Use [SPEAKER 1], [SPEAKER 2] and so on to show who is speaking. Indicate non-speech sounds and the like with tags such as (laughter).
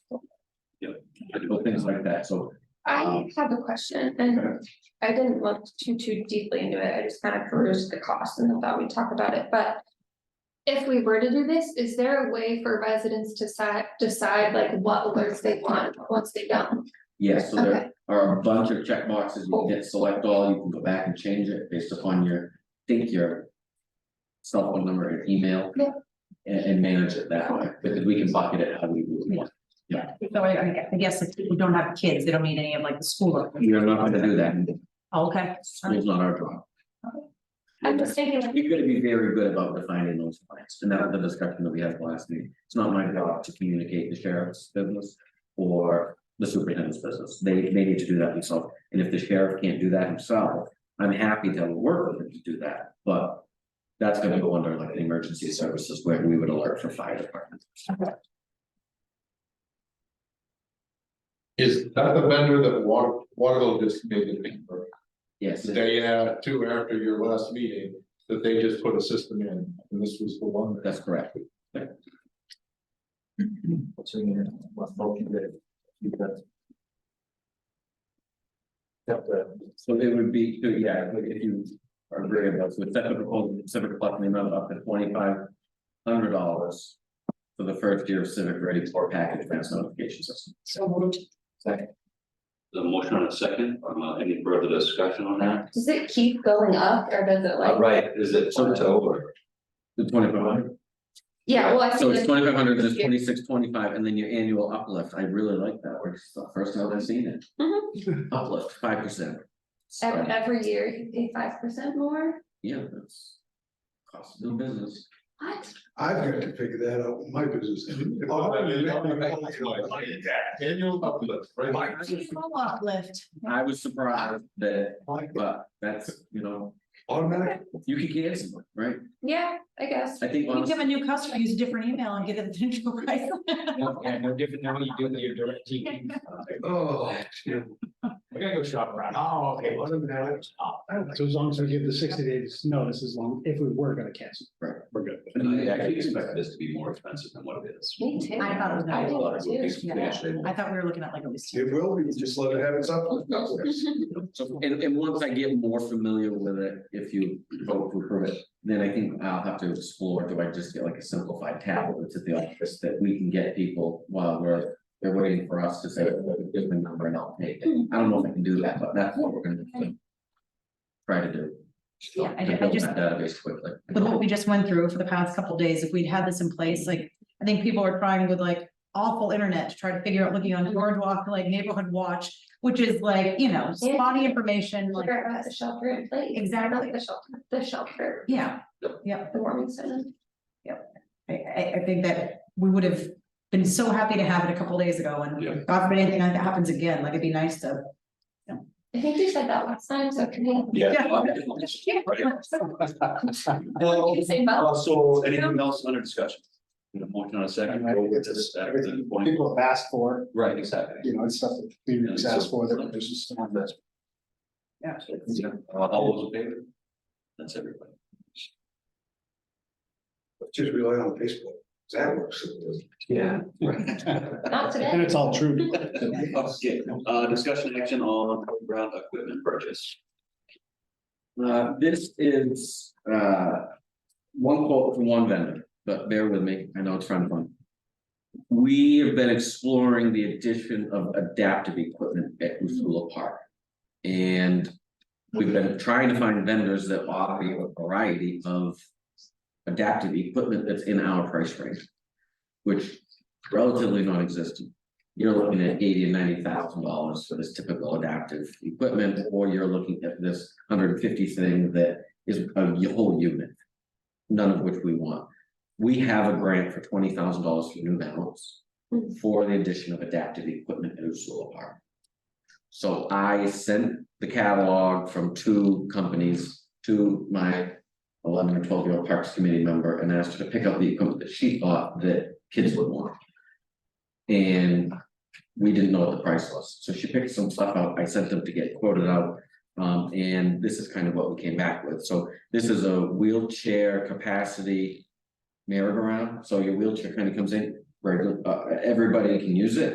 [SPEAKER 1] little things like that, so.
[SPEAKER 2] I
[SPEAKER 1] Um,
[SPEAKER 2] have a question and I didn't look too too deeply into it. I just kind of perused the cost and thought we'd talk about it, but. If we were to do this, is there a way for residents to decide decide like what alerts they want once they don't?
[SPEAKER 1] Yeah, so
[SPEAKER 2] Okay.
[SPEAKER 1] there are a bunch of check boxes. you can hit select all, you can go back and change it based upon your, think your. Cell phone number and email.
[SPEAKER 2] Yeah.
[SPEAKER 1] And and manage it that way, because we can bucket it how we would want.
[SPEAKER 3] Yeah, so I, I gue- I guess if people don't have kids, they don't need any of like the school.
[SPEAKER 1] We are not gonna do that,
[SPEAKER 3] Oh, Okay,
[SPEAKER 1] school's not our job.
[SPEAKER 2] I'm just thinking, like,
[SPEAKER 1] You've got to be very good about defining those lines, and that was the discussion that we had last meeting. It's not my job to communicate the sheriff's business or the superintendent's business. They, they need to do that themselves. And if the sheriff can't do that himself, I'm happy to work with him to do that, but that's gonna go under like the emergency services where we would alert for fire department.
[SPEAKER 4] Is that the vendor that Water, Waterville just made the thing for,
[SPEAKER 1] Yes,
[SPEAKER 4] the day uh, two after your last meeting, that they just put a system in, and this was the one that.
[SPEAKER 1] that's correct.
[SPEAKER 5] So you know, what motion that you got. That the,
[SPEAKER 1] So it would be, so yeah, if you are agreeable, so it's separate, proposal, civic plus the amount up to twenty-five hundred dollars. For the first year of civic ready for package advance notification system.
[SPEAKER 3] so moved.
[SPEAKER 5] second,
[SPEAKER 6] The motion on a second, um, uh, any further discussion on that?
[SPEAKER 2] does it keep going up or does it
[SPEAKER 6] All
[SPEAKER 2] like,
[SPEAKER 6] right, is it plateau or?
[SPEAKER 1] The twenty-five hundred,
[SPEAKER 2] yeah, well, I
[SPEAKER 1] so
[SPEAKER 2] feel
[SPEAKER 1] it's
[SPEAKER 2] like
[SPEAKER 1] twenty-five hundred, it's twenty-six, twenty-five, and then your annual uplift, I really like that, word. it's the first time I've seen it. Uplift, five percent.
[SPEAKER 2] ev- every year you pay five percent more?
[SPEAKER 1] Yeah, that's. Cost of doing business.
[SPEAKER 2] What?
[SPEAKER 7] I've got to figure that out in my
[SPEAKER 4] (laughs)
[SPEAKER 7] business.
[SPEAKER 4] Annual uplift, right?
[SPEAKER 3] Uplift.
[SPEAKER 1] I was surprised that,
[SPEAKER 7] Automatic,
[SPEAKER 1] but that's, you know, you could get it, right?
[SPEAKER 2] Yeah, I guess.
[SPEAKER 1] I think
[SPEAKER 3] You
[SPEAKER 1] honestly.
[SPEAKER 3] give a new customer, use a different email and get it (laughs) at the new price.
[SPEAKER 5] (laughs) no, yeah, no different than what you do with your direct TV.
[SPEAKER 7] oh,
[SPEAKER 5] We're gonna go shop around, oh, okay, what
[SPEAKER 7] automatic.
[SPEAKER 8] So as long as we give the sixty days
[SPEAKER 5] (laughs)
[SPEAKER 8] notice, (laughs) as long, if we were gonna cancel.
[SPEAKER 5] we're good.
[SPEAKER 6] I actually expect this to be more expensive than what it is.
[SPEAKER 2] Me too.
[SPEAKER 3] I thought it was
[SPEAKER 2] I
[SPEAKER 3] gonna
[SPEAKER 6] I
[SPEAKER 3] be-
[SPEAKER 6] thought it would be
[SPEAKER 2] did
[SPEAKER 6] substantially more.
[SPEAKER 3] I thought we were looking at like at least.
[SPEAKER 7] It will be, just let it have its uplift.
[SPEAKER 4] (laughs)
[SPEAKER 2] too.
[SPEAKER 1] So, and, and once I get more familiar with it, if you vote to approve it, then I think I'll have to explore, do I just get like a simplified tablet at the office that we can get people while we're. They're waiting for us to say, give me a number and I'll take it, I don't know if I can do that, but that's what we're gonna. Try to do.
[SPEAKER 3] Yeah, I
[SPEAKER 1] To
[SPEAKER 3] ju- I
[SPEAKER 1] build
[SPEAKER 3] just-
[SPEAKER 1] that Database quickly.
[SPEAKER 3] With what we just went through for the past couple days, if we'd had this in place, like, I think people are trying with like awful internet to try to figure out looking on Boardwalk, like Neighborhood Watch, which is like, you know, spotty information, like,
[SPEAKER 2] Figure out the shelter in place.
[SPEAKER 3] Exactly.
[SPEAKER 2] Not The shelter, the shelter,
[SPEAKER 3] yeah, yeah.
[SPEAKER 2] the warming center.
[SPEAKER 3] I, I, I think that we would have been so happy to have it a couple days ago
[SPEAKER 6] Yeah.
[SPEAKER 3] and God forbid anything like that happens again, like it'd be nice to.
[SPEAKER 2] I think you said that last time, so can we?
[SPEAKER 6] Oh,
[SPEAKER 5] Well,
[SPEAKER 2] you say both?
[SPEAKER 5] also,
[SPEAKER 6] Anything else under discussion? The motion on a second, go with this at the
[SPEAKER 8] Everything
[SPEAKER 6] point.
[SPEAKER 8] people have asked for,
[SPEAKER 6] Right, exactly.
[SPEAKER 8] you know, it's stuff that communities asked for, that we're just.
[SPEAKER 6] Yeah. uh, All those in favor? That's everybody.
[SPEAKER 7] Just rely on Facebook, that works.
[SPEAKER 5] yeah,
[SPEAKER 2] Not today.
[SPEAKER 8] And it's all true.
[SPEAKER 6] Okay, uh, discussion action on ground equipment purchase.
[SPEAKER 1] Uh, this is, uh. One quote from one vendor, but bear with me, I know it's front of mind. We have been exploring the addition of adaptive equipment at Usula Park. And we've been trying to find vendors that offer you a variety of. Adaptive equipment that's in our price range. Which relatively non-existent. You're looking at eighty and ninety thousand dollars for this typical adaptive equipment, or you're looking at this hundred and fifty thing that is a y- whole unit. None of which we want. We have a grant for twenty thousand dollars for new balance
[SPEAKER 2] Hmm.
[SPEAKER 1] for the addition of adaptive equipment in Ursula Park. So I sent the catalog from two companies to my eleven or twelve year old Parks Committee member and asked her to pick up the equipment that she thought that kids would want. And we didn't know what the price was, so she picked some stuff out, I sent them to get quoted out. Um, and this is kind of what we came back with, so this is a wheelchair capacity. Merry-go-round, so your wheelchair kind of comes in, regular, uh, everybody can use it.